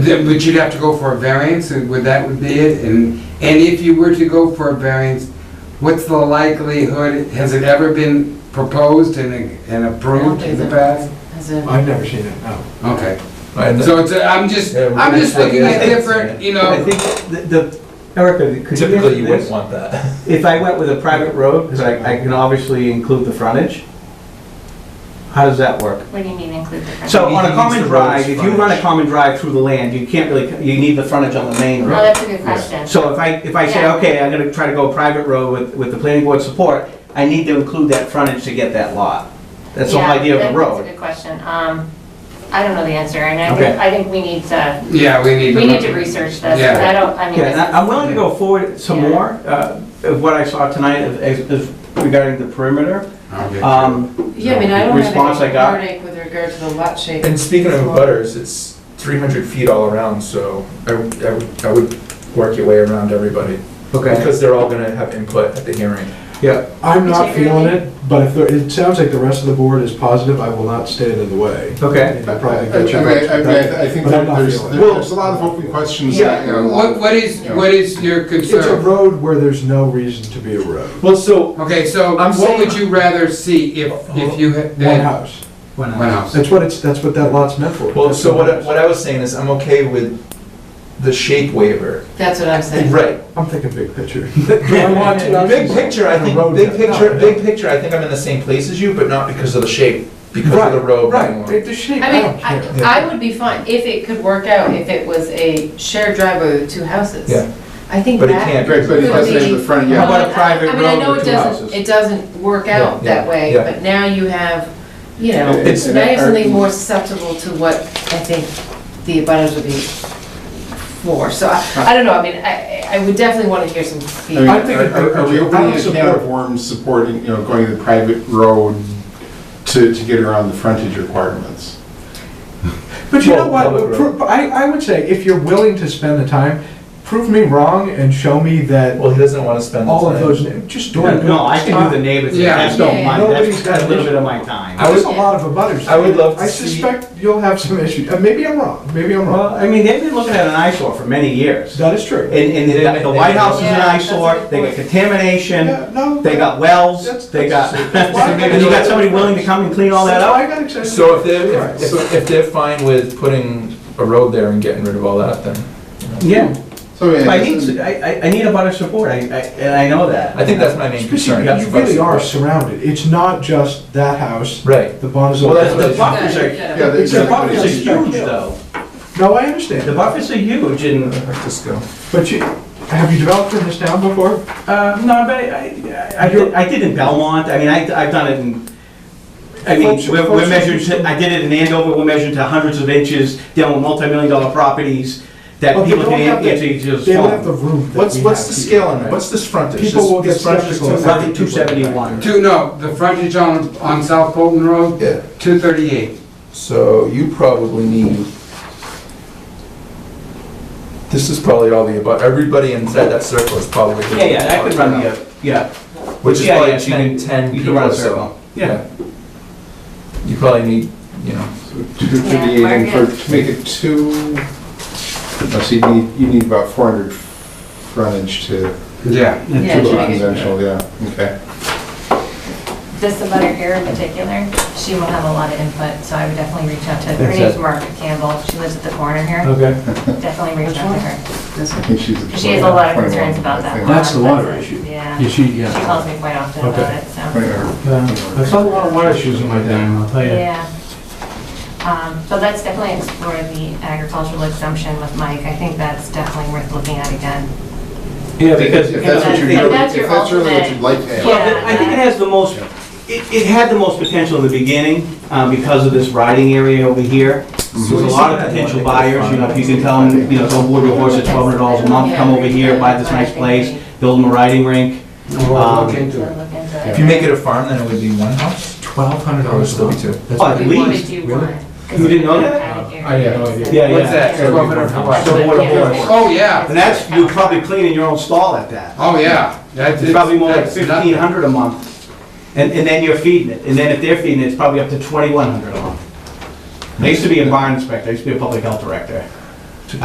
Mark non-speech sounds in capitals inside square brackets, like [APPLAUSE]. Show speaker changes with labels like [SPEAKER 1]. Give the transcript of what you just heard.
[SPEAKER 1] then- But you'd have to go for a variance, and would that would be it? And, and if you were to go for a variance, what's the likelihood, has it ever been proposed and and approved in the past?
[SPEAKER 2] As a,
[SPEAKER 3] I've never seen it, no.
[SPEAKER 1] Okay,
[SPEAKER 4] And
[SPEAKER 1] so it's, a- I'm just,
[SPEAKER 4] Yeah, we're
[SPEAKER 1] I'm just
[SPEAKER 4] gonna-
[SPEAKER 1] looking at different, you
[SPEAKER 3] I
[SPEAKER 1] know,
[SPEAKER 3] think the- the, Erica, could you
[SPEAKER 4] Typically, you
[SPEAKER 3] answer
[SPEAKER 4] wouldn't
[SPEAKER 3] this?
[SPEAKER 4] want that.
[SPEAKER 3] If I went with a private road, because I, I can obviously include the frontage, how does that work?
[SPEAKER 2] what do you mean include the?
[SPEAKER 3] So
[SPEAKER 4] He
[SPEAKER 3] on a
[SPEAKER 4] needs
[SPEAKER 3] common
[SPEAKER 4] the road's
[SPEAKER 3] drive, if you run a
[SPEAKER 4] frontage.
[SPEAKER 3] common drive through the land, you can't really, you need the frontage on the main
[SPEAKER 2] Oh,
[SPEAKER 3] road.
[SPEAKER 2] that's a good question.
[SPEAKER 3] So if I, if I say,
[SPEAKER 2] Yeah.
[SPEAKER 3] okay, I'm gonna try to go a private road with, with the planning board support, I need to include that frontage to get that lot. That's the whole
[SPEAKER 2] Yeah,
[SPEAKER 3] idea of
[SPEAKER 2] that-
[SPEAKER 3] the
[SPEAKER 2] That's a
[SPEAKER 3] road.
[SPEAKER 2] good question. Um, I don't know the answer, and I think,
[SPEAKER 3] Okay.
[SPEAKER 2] I think we need to,
[SPEAKER 1] yeah, we need to.
[SPEAKER 2] we need to research this, 'cause
[SPEAKER 1] Yeah.
[SPEAKER 2] I don't, I mean,
[SPEAKER 3] Yeah, and I-
[SPEAKER 2] this
[SPEAKER 3] I'm willing to go forward some
[SPEAKER 2] Yeah.
[SPEAKER 3] more, uh, of what I saw tonight of- as- as regarding the perimeter.
[SPEAKER 1] Okay.
[SPEAKER 3] Um,
[SPEAKER 5] Yeah, I mean, I don't
[SPEAKER 3] Response
[SPEAKER 5] have
[SPEAKER 3] I
[SPEAKER 5] any
[SPEAKER 3] got.
[SPEAKER 5] heartache with regard to the lot shape.
[SPEAKER 4] And speaking of butters, it's 300 feet all around, so I would- I would, I would work your way around everybody. Because they're all gonna have input at the hearing.
[SPEAKER 3] yeah.
[SPEAKER 6] I'm not feeling it, but if, there- it sounds like the rest of the board is positive, I will not stand in the way.
[SPEAKER 3] Okay.
[SPEAKER 6] And I probably
[SPEAKER 7] Uh, I, I,
[SPEAKER 6] get you-
[SPEAKER 7] I, I- I think
[SPEAKER 6] But I'm
[SPEAKER 7] that
[SPEAKER 6] not
[SPEAKER 7] there's,
[SPEAKER 6] feeling it.
[SPEAKER 7] there's a lot of open questions.
[SPEAKER 3] Yeah,
[SPEAKER 7] and a lot
[SPEAKER 1] What,
[SPEAKER 7] of-
[SPEAKER 1] what is, what is your
[SPEAKER 6] It's a
[SPEAKER 1] concern?
[SPEAKER 6] road where there's no reason to be a road.
[SPEAKER 4] Well, so,
[SPEAKER 1] Okay, so
[SPEAKER 4] I'm
[SPEAKER 1] what would
[SPEAKER 4] saying-
[SPEAKER 1] you rather see if, if you had,
[SPEAKER 6] One house.
[SPEAKER 3] One
[SPEAKER 1] one house?
[SPEAKER 6] That's what it's, that's what that lot's meant for.
[SPEAKER 4] well, so what, I- what I was saying is I'm okay with the shape waiver.
[SPEAKER 5] That's what I'm saying.
[SPEAKER 4] Right.
[SPEAKER 6] I'm thinking big
[SPEAKER 4] [LAUGHS]
[SPEAKER 6] picture. [LAUGHS]
[SPEAKER 4] Big picture, I think, big picture, big picture, I think I'm in the same place as you, but not because of the shape, because of the road. being long.
[SPEAKER 6] Right, the shape,
[SPEAKER 5] I
[SPEAKER 6] I
[SPEAKER 5] mean,
[SPEAKER 6] don't care.
[SPEAKER 5] I, I would be fine if it could work out, if it was a shared driveway with two houses.
[SPEAKER 4] Yeah.
[SPEAKER 5] I think
[SPEAKER 4] But it
[SPEAKER 5] that.
[SPEAKER 4] can't.
[SPEAKER 7] Right, but it doesn't have the front
[SPEAKER 3] How
[SPEAKER 7] yard.
[SPEAKER 3] about a private
[SPEAKER 5] I mean, I
[SPEAKER 3] road
[SPEAKER 5] know
[SPEAKER 3] with
[SPEAKER 5] it
[SPEAKER 3] two
[SPEAKER 5] doesn't,
[SPEAKER 3] houses?
[SPEAKER 5] it doesn't work out
[SPEAKER 4] Yeah,
[SPEAKER 5] that way,
[SPEAKER 4] yeah.
[SPEAKER 5] but now you have, you know,
[SPEAKER 7] It's-
[SPEAKER 5] now you have something more susceptible to what I think the abutters would be for. So I, I don't know, I mean, I, I would definitely want to hear some
[SPEAKER 7] I mean,
[SPEAKER 5] feedback.
[SPEAKER 6] I think
[SPEAKER 7] are-
[SPEAKER 6] it-
[SPEAKER 7] are are we
[SPEAKER 6] I
[SPEAKER 7] opening
[SPEAKER 6] would
[SPEAKER 7] a can of
[SPEAKER 6] support-
[SPEAKER 7] worms supporting, you know, going the private road to, to get around the frontage requirements?
[SPEAKER 6] But you
[SPEAKER 4] Well,
[SPEAKER 6] know what,
[SPEAKER 4] public road.
[SPEAKER 6] Pro- I, I would say, if you're willing to spend the time, prove me wrong and show me that
[SPEAKER 4] Well, he doesn't wanna spend the
[SPEAKER 6] all of
[SPEAKER 4] time.
[SPEAKER 6] those, just do it.
[SPEAKER 3] No, I can do the neighbors,
[SPEAKER 1] Yeah.
[SPEAKER 3] that's
[SPEAKER 5] Yeah,
[SPEAKER 3] no
[SPEAKER 5] yeah.
[SPEAKER 3] mind, that's
[SPEAKER 6] Nobody's got
[SPEAKER 3] a little
[SPEAKER 6] an
[SPEAKER 3] bit of my time.
[SPEAKER 4] I
[SPEAKER 6] There's
[SPEAKER 4] would-
[SPEAKER 6] a lot of abutters.
[SPEAKER 4] I would love to
[SPEAKER 6] I
[SPEAKER 4] see-
[SPEAKER 6] suspect you'll have some issues. Uh, Maybe I'm wrong, maybe I'm
[SPEAKER 3] Well,
[SPEAKER 6] wrong.
[SPEAKER 3] I mean, they've been looking at an eyesore for many years.
[SPEAKER 6] That is true.
[SPEAKER 3] And, and
[SPEAKER 4] They-
[SPEAKER 3] the- the White House is an
[SPEAKER 5] Yeah, that's a good
[SPEAKER 3] eyesore, they got
[SPEAKER 5] point.
[SPEAKER 3] contamination,
[SPEAKER 6] Yeah, no,
[SPEAKER 3] they
[SPEAKER 6] that-
[SPEAKER 3] got
[SPEAKER 6] that's-
[SPEAKER 3] wells, they got, [LAUGHS]
[SPEAKER 6] that's- why I
[SPEAKER 3] and you got somebody willing to come and clean all that
[SPEAKER 6] That's why I
[SPEAKER 3] up?
[SPEAKER 6] got excited.
[SPEAKER 4] So if they're,
[SPEAKER 6] Right.
[SPEAKER 4] if- if, if they're fine with putting a road there and getting rid of all that, then.
[SPEAKER 3] Yeah,
[SPEAKER 7] So,
[SPEAKER 3] but
[SPEAKER 7] yeah,
[SPEAKER 3] I need,
[SPEAKER 7] this is-
[SPEAKER 3] I, I- I need a butter support, I, I- and I know that.
[SPEAKER 4] I think that's my main concern.
[SPEAKER 6] Especially, you really are surrounded. It's not just that house,
[SPEAKER 4] Right.
[SPEAKER 6] the Bonzo.
[SPEAKER 4] Well, that's
[SPEAKER 3] The buffers
[SPEAKER 5] Yeah.
[SPEAKER 3] are,
[SPEAKER 7] yeah,
[SPEAKER 6] It's
[SPEAKER 3] the
[SPEAKER 7] exactly.
[SPEAKER 3] buffers are huge
[SPEAKER 6] Yeah.
[SPEAKER 3] though,
[SPEAKER 6] No, I
[SPEAKER 3] the
[SPEAKER 6] understand.
[SPEAKER 3] buffers are huge and,
[SPEAKER 4] Just go.
[SPEAKER 6] But you, have you developed in this town before?
[SPEAKER 3] uh, no, but I, I- I, did- I did in Belmont, I mean, I, I've done it in, I mean,
[SPEAKER 6] Folks-
[SPEAKER 3] we're,
[SPEAKER 6] folks-
[SPEAKER 3] we're measured to, I did it in Andover, we're measured to hundreds of inches, down with multi-million dollar properties that
[SPEAKER 6] But they
[SPEAKER 3] people
[SPEAKER 6] don't
[SPEAKER 3] can
[SPEAKER 6] have the-
[SPEAKER 3] answer each other's
[SPEAKER 6] They don't have the
[SPEAKER 3] phone.
[SPEAKER 6] room that
[SPEAKER 4] What's,
[SPEAKER 6] we
[SPEAKER 4] what's
[SPEAKER 6] have
[SPEAKER 4] the
[SPEAKER 6] here.
[SPEAKER 4] scale on it? What's this frontage?
[SPEAKER 6] People
[SPEAKER 4] This-
[SPEAKER 6] will get
[SPEAKER 4] this frontage is
[SPEAKER 6] skeptical.
[SPEAKER 4] two-
[SPEAKER 3] Roughly two seventy-one.
[SPEAKER 1] Two, no, the frontage on, on South Fulton Road,
[SPEAKER 4] Yeah,
[SPEAKER 1] two thirty-eight.
[SPEAKER 4] so you probably need, this is probably all the above, everybody inside that circle is probably.
[SPEAKER 3] Yeah, yeah, that could run the, yeah.
[SPEAKER 4] Which is
[SPEAKER 3] Yeah,
[SPEAKER 4] probably
[SPEAKER 3] yeah,
[SPEAKER 4] you need ten
[SPEAKER 3] You
[SPEAKER 4] people
[SPEAKER 3] could run
[SPEAKER 4] or
[SPEAKER 3] a
[SPEAKER 4] so.
[SPEAKER 3] circle. Yeah.
[SPEAKER 4] You probably need, you know,
[SPEAKER 7] Two fifty-eight, and
[SPEAKER 2] we're
[SPEAKER 7] for, to make it two, let's see, you need, you need about four hundred frontage to,
[SPEAKER 1] Yeah,
[SPEAKER 5] Yeah,
[SPEAKER 7] to
[SPEAKER 5] it should be good.
[SPEAKER 7] residential, yeah, okay.
[SPEAKER 2] this about her here in particular, she will have a lot of input, so I would definitely reach out to, her
[SPEAKER 3] That's
[SPEAKER 2] name's
[SPEAKER 3] it.
[SPEAKER 2] Margaret Campbell, she lives at the corner here,
[SPEAKER 3] Okay.
[SPEAKER 2] definitely reach out to her.
[SPEAKER 5] This
[SPEAKER 7] I think she's.
[SPEAKER 2] She has a lot of concerns
[SPEAKER 7] 21,
[SPEAKER 2] about that.
[SPEAKER 7] I think.
[SPEAKER 2] lot,
[SPEAKER 8] That's the water
[SPEAKER 2] but-
[SPEAKER 8] issue.
[SPEAKER 2] Yeah,
[SPEAKER 8] You
[SPEAKER 2] she
[SPEAKER 8] see, yeah.
[SPEAKER 2] calls me quite often about
[SPEAKER 8] Okay.
[SPEAKER 2] it, so,
[SPEAKER 7] 21.
[SPEAKER 8] I saw a lot of water issues in my town, I'll tell you.
[SPEAKER 2] yeah. Um, So that's definitely explore the agricultural exemption with Mike, I think that's definitely worth looking at again.
[SPEAKER 3] Yeah,
[SPEAKER 7] If if that's what you're,
[SPEAKER 2] If
[SPEAKER 7] really-
[SPEAKER 2] that's your
[SPEAKER 7] if that's really what
[SPEAKER 2] ultimate-
[SPEAKER 7] you'd like to have.
[SPEAKER 3] Well, I think it has the most, it, it had the most potential in the beginning, um, because of this riding area over here. There's a lot of potential buyers, you know, if you can tell them, you know, don't board your horse at twelve hundred dollars a month, come over here, buy this nice place, build them a riding rink. Um,
[SPEAKER 1] we'll look into
[SPEAKER 2] We'll
[SPEAKER 1] it.
[SPEAKER 2] look into
[SPEAKER 4] if
[SPEAKER 2] it.
[SPEAKER 4] you make it a farm, then it would be one house,
[SPEAKER 8] Twelve hundred
[SPEAKER 4] or it would
[SPEAKER 8] dollars
[SPEAKER 4] still be two.
[SPEAKER 8] That's
[SPEAKER 3] Oh,
[SPEAKER 8] pretty-
[SPEAKER 3] Really?
[SPEAKER 2] What would you want? 'Cause
[SPEAKER 3] You didn't know
[SPEAKER 2] we
[SPEAKER 3] that? Oh,
[SPEAKER 2] have it
[SPEAKER 8] I had no
[SPEAKER 2] here.
[SPEAKER 8] idea.
[SPEAKER 3] Yeah,
[SPEAKER 1] What's that,
[SPEAKER 2] Yeah.
[SPEAKER 1] twelve hundred for
[SPEAKER 2] That's
[SPEAKER 1] what?
[SPEAKER 3] So what a
[SPEAKER 2] yeah.
[SPEAKER 3] horse.
[SPEAKER 1] Oh, yeah,
[SPEAKER 3] And that's, you're probably cleaning your own stall at that.
[SPEAKER 1] oh, yeah. That's
[SPEAKER 3] It's probably more like
[SPEAKER 1] that's nothing.
[SPEAKER 3] fifteen hundred a month. And, and then you're feeding it, and then if they're feeding it, it's probably up to twenty-one hundred a month. I used to be a barn inspector, I used to be a public health director.